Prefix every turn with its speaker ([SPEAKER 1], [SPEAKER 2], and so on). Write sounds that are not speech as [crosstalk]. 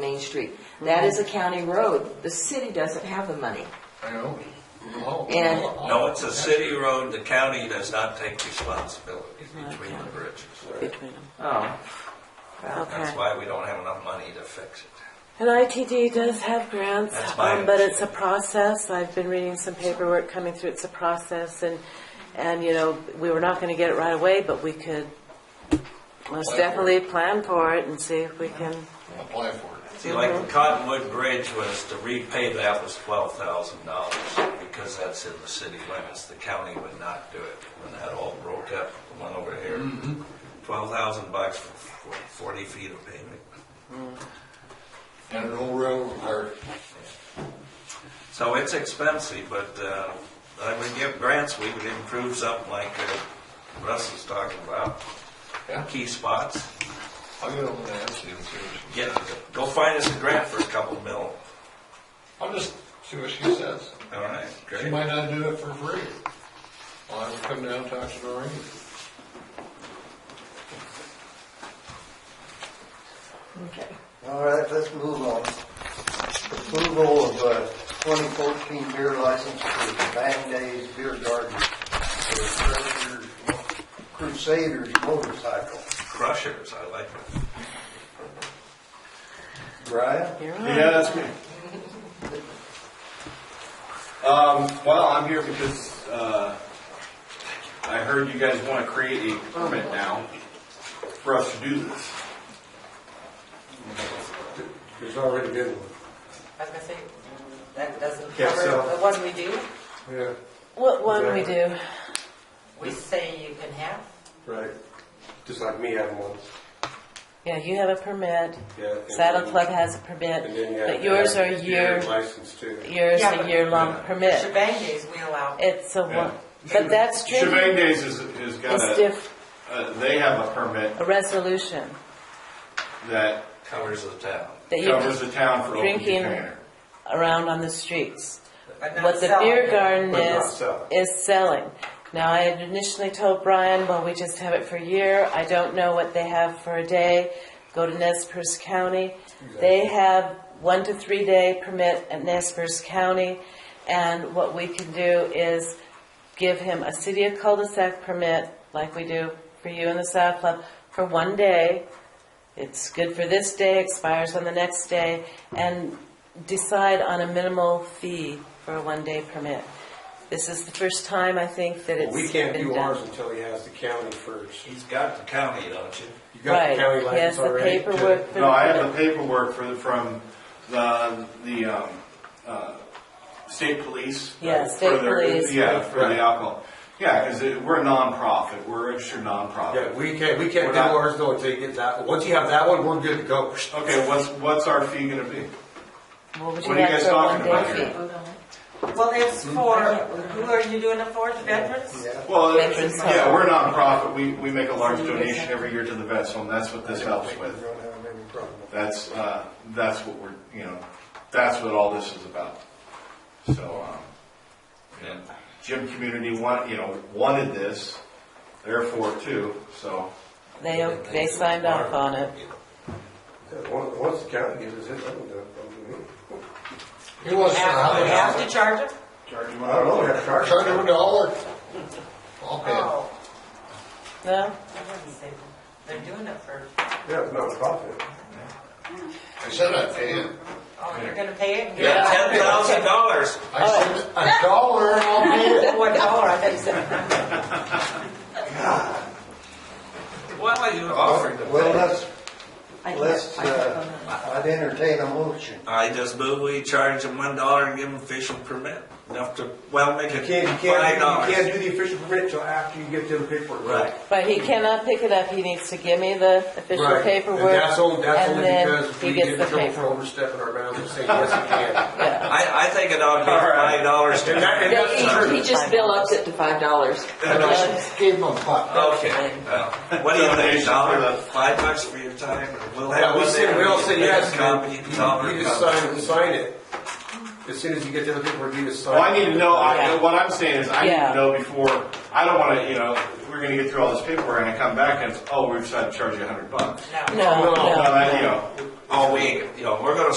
[SPEAKER 1] Main Street. That is a county road. The city doesn't have the money.
[SPEAKER 2] I know. No.
[SPEAKER 1] And-
[SPEAKER 2] Oh,
[SPEAKER 3] No, it's a city road, the county does not take responsibility between the bridges.
[SPEAKER 4] between them.
[SPEAKER 1] Oh.
[SPEAKER 4] Okay.
[SPEAKER 3] That's why we don't have enough money to fix it.
[SPEAKER 4] And ITD does have grants,
[SPEAKER 3] That's my
[SPEAKER 4] um, but it's a process. I've been reading some paperwork coming through. It's a process and, and, you know, we were not gonna get it right away, but we could most
[SPEAKER 2] for it.
[SPEAKER 4] definitely plan for it and see if we can.
[SPEAKER 2] Apply for it.
[SPEAKER 3] See, like the Cottonwood Bridge was, to repay that was twelve thousand dollars, because that's in the city limits, the county would not do it. When that all broke up, the one over here, twelve thousand bucks for forty feet of pavement.
[SPEAKER 2] And an old railroad car.
[SPEAKER 3] So it's expensive, but uh, I would give grants, we would improve something like uh, Russ is talking about.
[SPEAKER 2] Yeah.
[SPEAKER 3] Key spots,
[SPEAKER 2] I'll get over there and see him seriously.
[SPEAKER 3] get, go find us a grant for a couple mil.
[SPEAKER 2] I'll just see what she says.
[SPEAKER 3] All right,
[SPEAKER 2] She
[SPEAKER 3] great.
[SPEAKER 2] might not do it for free. I'll have her come down and talk to Noreen.
[SPEAKER 1] Okay.
[SPEAKER 5] All right, let's move on. Approval of uh, 2014 beer license for Bang Days Beer Garden for Crusader- Crusaders motorcycle.
[SPEAKER 3] Crushers, I like it.
[SPEAKER 5] Brian?
[SPEAKER 4] You're on.
[SPEAKER 6] Yeah, that's me. Um, well, I'm here because, uh, I heard you guys wanna create a permit now for us to do this.
[SPEAKER 7] There's already been one.
[SPEAKER 8] I was gonna say, that doesn't
[SPEAKER 6] Yeah,
[SPEAKER 8] cover
[SPEAKER 6] so-
[SPEAKER 8] the one we do.
[SPEAKER 7] Yeah,
[SPEAKER 4] What one we do?
[SPEAKER 8] We say you can have.
[SPEAKER 7] right. Just like me having one.
[SPEAKER 4] Yeah, you have a permit.
[SPEAKER 7] Yeah. and
[SPEAKER 4] Saddle
[SPEAKER 7] then-
[SPEAKER 4] Club has a
[SPEAKER 7] And then you
[SPEAKER 4] permit,
[SPEAKER 7] have
[SPEAKER 4] but
[SPEAKER 7] to
[SPEAKER 4] yours
[SPEAKER 7] have
[SPEAKER 4] are
[SPEAKER 7] your
[SPEAKER 4] year,
[SPEAKER 7] License too.
[SPEAKER 4] yours
[SPEAKER 8] Yeah,
[SPEAKER 4] a
[SPEAKER 8] but-
[SPEAKER 4] year-long permit.
[SPEAKER 8] Shebang days, we allow.
[SPEAKER 4] It's a
[SPEAKER 6] Yeah.
[SPEAKER 4] one, but that's true.
[SPEAKER 6] Shebang Days is, is
[SPEAKER 4] It's
[SPEAKER 6] got a,
[SPEAKER 4] diff,
[SPEAKER 6] uh, they have a permit
[SPEAKER 4] a resolution
[SPEAKER 6] that
[SPEAKER 3] Covers the town.
[SPEAKER 4] that you
[SPEAKER 6] covers the town for open
[SPEAKER 4] Drinking.
[SPEAKER 6] container.
[SPEAKER 4] around on the streets.
[SPEAKER 8] but not
[SPEAKER 4] What the
[SPEAKER 8] sell
[SPEAKER 4] beer
[SPEAKER 8] it.
[SPEAKER 4] garden
[SPEAKER 6] But not
[SPEAKER 4] is,
[SPEAKER 6] selling.
[SPEAKER 4] is selling. Now, I had initially told Brian, well, we just have it for a year. I don't know what they have for a day. Go to Nez Perce County. They have one to three day permit at Nez Perce County. And what we can do is give him a city of cul-de-sac permit, like we do for you in the Saddle Club, for one day. It's good for this day, expires on the next day, and decide on a minimal fee for a one-day permit. This is the first time, I think, that it's
[SPEAKER 7] Well,
[SPEAKER 4] been done.
[SPEAKER 7] We can't do ours until he has the county first.
[SPEAKER 3] He's got the county, don't you?
[SPEAKER 7] You got the county
[SPEAKER 4] Right, he has
[SPEAKER 7] license
[SPEAKER 4] the
[SPEAKER 7] already?
[SPEAKER 4] paperwork for the
[SPEAKER 6] No, I have
[SPEAKER 4] permit.
[SPEAKER 6] the paperwork for, from the, the, um, uh, state police.
[SPEAKER 4] Yeah,
[SPEAKER 6] right,
[SPEAKER 4] state
[SPEAKER 6] for their-
[SPEAKER 4] police.
[SPEAKER 6] Yeah, for the
[SPEAKER 7] Right.
[SPEAKER 6] alcohol. Yeah, because we're a nonprofit, we're a registered
[SPEAKER 7] Yeah,
[SPEAKER 6] nonprofit.
[SPEAKER 7] we can't, we
[SPEAKER 6] We're
[SPEAKER 7] can't do
[SPEAKER 6] not-
[SPEAKER 7] ours though until you get that, once you have that one, we're good to go.
[SPEAKER 6] Okay, what's, what's our fee gonna be?
[SPEAKER 4] What would you
[SPEAKER 6] What are you
[SPEAKER 4] like
[SPEAKER 6] guys
[SPEAKER 4] for a
[SPEAKER 6] talking
[SPEAKER 4] one-day
[SPEAKER 6] about
[SPEAKER 4] fee?
[SPEAKER 6] here?
[SPEAKER 8] Well, it's for, who are you doing it for, the veterans?
[SPEAKER 5] Yeah.
[SPEAKER 6] Well,
[SPEAKER 4] Veterans
[SPEAKER 6] yeah, we're a nonprofit, we, we make a large donation every year to the vets home, that's what this helps
[SPEAKER 5] We
[SPEAKER 6] with.
[SPEAKER 5] don't have any problem.
[SPEAKER 6] That's, uh, that's what we're, you know, that's what all this is about. So, um, you know, Jim Community want, you know, wanted this, therefore too, so.
[SPEAKER 4] They, they signed off on it.
[SPEAKER 7] Yeah, on- Once the county gives us it, I don't do it, don't do me.
[SPEAKER 2] He wants to know how
[SPEAKER 8] Have-
[SPEAKER 2] many
[SPEAKER 8] We have to charge them?
[SPEAKER 6] Charge him
[SPEAKER 7] I don't know, we have to charge.
[SPEAKER 2] Charge him a dollar. I'll pay it.
[SPEAKER 8] Oh,
[SPEAKER 4] No?
[SPEAKER 8] I wouldn't say that. They're doing it for,
[SPEAKER 7] Yeah, it's not a profit.
[SPEAKER 2] I said I'd pay him.
[SPEAKER 8] oh, you're gonna pay it? and get
[SPEAKER 3] Yeah,
[SPEAKER 8] it out?
[SPEAKER 3] ten thousand dollars.
[SPEAKER 2] I said a dollar and I'll pay it.
[SPEAKER 8] One dollar, I thought you said.
[SPEAKER 3] Well, you offered to
[SPEAKER 5] Well,
[SPEAKER 3] pay.
[SPEAKER 5] let's, let's, uh, I'd entertain a motion.
[SPEAKER 3] I just move we charge them one dollar and give them official permit, enough to, well, make
[SPEAKER 7] You can't,
[SPEAKER 3] it
[SPEAKER 7] you
[SPEAKER 3] five
[SPEAKER 7] can't, you
[SPEAKER 3] dollars.
[SPEAKER 7] can't do the official permit until after you get them paperwork.
[SPEAKER 3] Right.
[SPEAKER 4] But he cannot pick it up, he needs to give me the official
[SPEAKER 7] Right.
[SPEAKER 4] paperwork.
[SPEAKER 7] And that's only, that's
[SPEAKER 4] and
[SPEAKER 7] only
[SPEAKER 4] then
[SPEAKER 7] because
[SPEAKER 4] he
[SPEAKER 7] we
[SPEAKER 4] gets
[SPEAKER 7] get in
[SPEAKER 4] the
[SPEAKER 7] trouble for
[SPEAKER 4] paper.
[SPEAKER 7] overstepping our bounds and saying, yes, [laughs] you can.
[SPEAKER 4] Yeah.
[SPEAKER 3] I, I think it ought to be
[SPEAKER 7] All right.
[SPEAKER 3] five dollars.
[SPEAKER 7] And that- and that's
[SPEAKER 3] Okay,
[SPEAKER 7] true.
[SPEAKER 1] He just bill ups it to five dollars.
[SPEAKER 2] And I gave him a buck.
[SPEAKER 3] well, what do you think,
[SPEAKER 6] Donation for
[SPEAKER 3] dollar,
[SPEAKER 6] the-
[SPEAKER 3] five bucks for your time, and we'll have
[SPEAKER 7] Yeah, we
[SPEAKER 3] one
[SPEAKER 7] say,
[SPEAKER 3] there.
[SPEAKER 7] we all say
[SPEAKER 3] Make a
[SPEAKER 7] yes,
[SPEAKER 3] copy, dollar
[SPEAKER 7] you you just
[SPEAKER 3] copy.
[SPEAKER 7] sign it, sign it. As soon as you get the other paperwork, you just sign.
[SPEAKER 6] Well, I need
[SPEAKER 7] it.
[SPEAKER 6] to know, I,
[SPEAKER 4] Yeah.
[SPEAKER 6] what I'm saying is, I need
[SPEAKER 4] Yeah.
[SPEAKER 6] to know before, I don't wanna, you know, we're gonna get through all this paperwork and I come back and, it's, oh, we decided to charge you a hundred bucks.
[SPEAKER 8] No.
[SPEAKER 4] No,
[SPEAKER 7] No,
[SPEAKER 6] Well,
[SPEAKER 4] no.
[SPEAKER 6] I- you know,
[SPEAKER 3] all week, you know, we're gonna